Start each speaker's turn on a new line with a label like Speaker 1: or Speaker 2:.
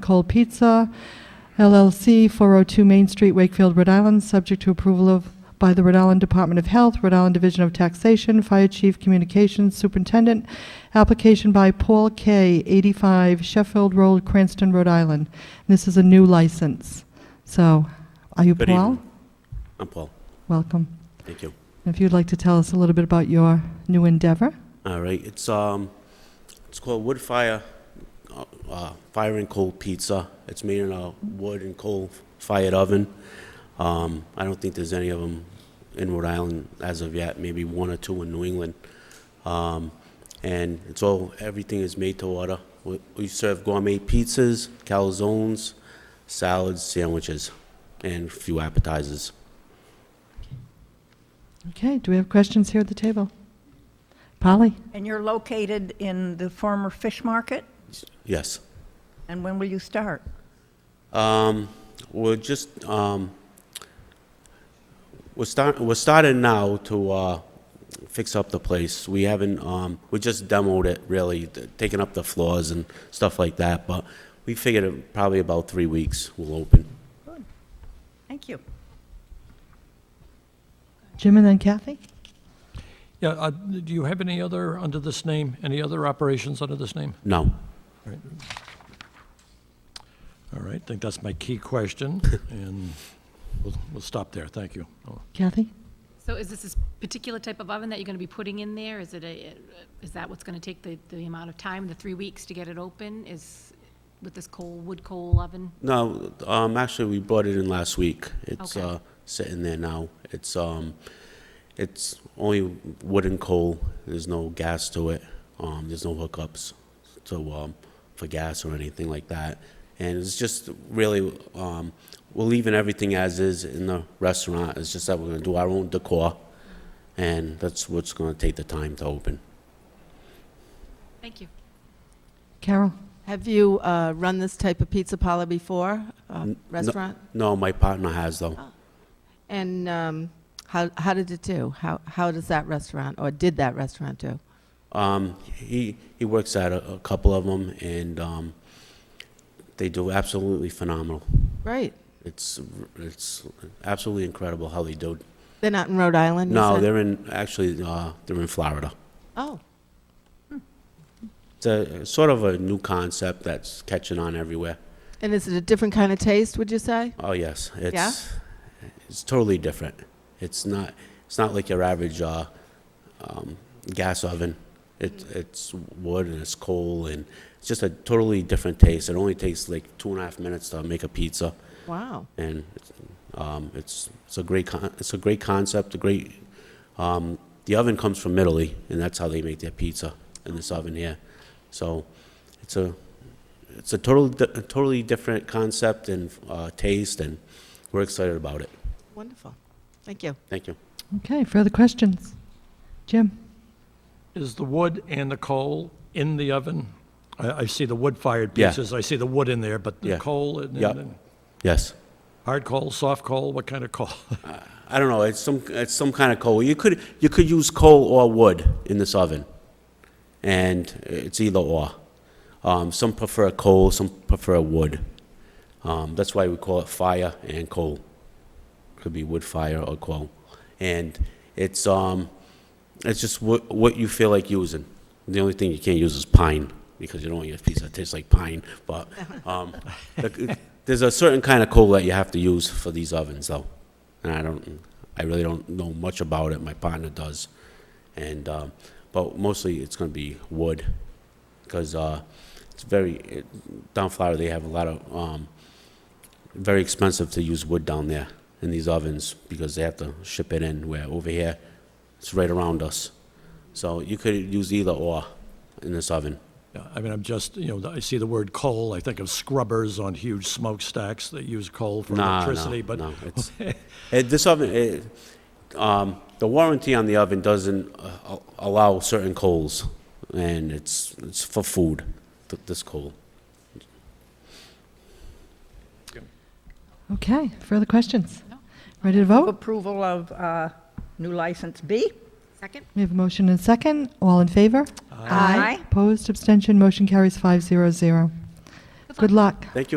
Speaker 1: Cold Pizza LLC, 402 Main Street, Wakefield, Rhode Island, subject to approval of, by the Rhode Island Department of Health, Rhode Island Division of Taxation, Fire Chief Communications Superintendent, application by Paul K., 85 Sheffield Road, Cranston, Rhode Island. This is a new license. So, are you
Speaker 2: Good
Speaker 1: Paul?
Speaker 2: evening. I'm Paul.
Speaker 1: Welcome.
Speaker 2: Thank you.
Speaker 1: If you'd like to tell us a little bit about your new endeavor?
Speaker 2: All right. It's um, it's called wood fire, uh, uh, fire and coal pizza. It's made in a wood and coal fired oven. Um, I don't think there's any of them in Rhode Island as of yet. Maybe one or two in New England. Um, and it's all everything is made to order. We, we serve gourmet pizzas, calzones, salads, sandwiches, and a few appetizers.
Speaker 1: Okay, do we have questions here at the table? Polly?
Speaker 3: And you're located in the former fish market?
Speaker 2: Yes.
Speaker 3: And when will you start?
Speaker 2: Um, we're just, um, we're start, we're starting now to, uh, fix up the place. We haven't, um, we just demoed it really, th- taking up the floors and stuff like that, but we figured it probably about three weeks we'll open.
Speaker 3: Thank you.
Speaker 1: Jim and then Kathy?
Speaker 4: Yeah, uh, do you have any other, under this name, any other operations under this name?
Speaker 2: No,
Speaker 4: All right, I think that's my key question, and we'll, we'll stop there, thank you. Oh,
Speaker 1: Kathy?
Speaker 5: So is this this particular type of oven that you're going to be putting in there? Is it a, is that what's going to take the, the amount of time, the three weeks to get it open? Is with this coal, wood coal oven?
Speaker 2: no, um, actually, we brought it in last week. It's,
Speaker 5: Okay.
Speaker 2: uh, sitting there now. It's, um, it's only wood and coal. There's no gas to it. Um, there's no hookups to, um, for gas or anything like that. And it's just really, um, we're leaving everything as is in the restaurant. It's just that we're gonna do our own decor. And that's what's gonna take the time to open.
Speaker 5: Thank you.
Speaker 1: Carol?
Speaker 6: Have you uh, run this type of pizza parlor before, uh,
Speaker 2: N- no.
Speaker 6: restaurant?
Speaker 2: No, my partner has though.
Speaker 6: And um, how how did it do? How how does that restaurant, or did that restaurant do?
Speaker 2: Um, he he works at a, a couple of them, and um, they do absolutely phenomenal.
Speaker 6: Great.
Speaker 2: It's it's absolutely incredible how they do.
Speaker 6: They're not in Rhode Island? you
Speaker 2: No,
Speaker 6: said?
Speaker 2: they're in actually uh, they're in Florida.
Speaker 6: Oh,
Speaker 2: It's a sort of a new concept that's catching on everywhere.
Speaker 6: and is it a different kind of taste, would you say?
Speaker 2: Oh yes, it's it's totally different. It's not it's not like your average uh, um, gas oven. It's it's wood and it's coal and it's just a totally different taste. It only takes like two and a half minutes to make a pizza.
Speaker 6: Wow.
Speaker 2: and um, it's it's a great con- it's a great concept. A great um, the oven comes from Italy, and that's how they make their pizza in this oven here. So it's a it's a total di- a totally different concept and uh, taste, and we're excited about it.
Speaker 6: Wonderful. Thank you.
Speaker 2: Thank you.
Speaker 1: Okay, further questions? Jim?
Speaker 4: Is the wood and the coal in the oven? I, I see the wood-fired
Speaker 2: Yeah.
Speaker 4: pieces, I see the wood in there, but
Speaker 2: Yeah.
Speaker 4: the coal and,
Speaker 2: Yep.
Speaker 4: and-
Speaker 2: Yes,
Speaker 4: hard coal, soft coal, what kind of coal?
Speaker 2: I don't know. It's some it's some kind of coal. You could you could use coal or wood in this oven, and it's either or. Um, some prefer coal, some prefer wood. Um, that's why we call it fire and coal. Could be wood fire or coal, and it's um, it's just what what you feel like using. The only thing you can't use is pine because you don't want your pizza to taste like pine. But um, the- there's a certain kind of coal that you have to use for these ovens, though, and I don't, I really don't know much about it. My partner does, and um, but mostly it's going to be wood because uh, it's very it, down Florida. They have a lot of um, very expensive to use wood down there in these ovens because they have to ship it in. Where over here, it's right around us, so you could use either or in this oven.
Speaker 4: Yeah, I mean, I'm just, you know, I see the word coal, I think of scrubbers on huge smokestacks that use coal for
Speaker 2: Nah, no,
Speaker 4: electricity, but
Speaker 2: no, it's- Eh, this oven, eh, um, the warranty on the oven doesn't uh, al- allow certain coals, and it's it's for food. Th- this coal.
Speaker 1: Okay, further questions?
Speaker 5: No.
Speaker 1: Ready to vote?
Speaker 3: Approval of uh, new license B?
Speaker 5: Second?
Speaker 1: We have a motion and a second. All in favor?
Speaker 6: Aye.
Speaker 1: Opposed, abstention, motion carries 500.
Speaker 5: So
Speaker 7: luck.
Speaker 8: Good luck.
Speaker 1: Thank you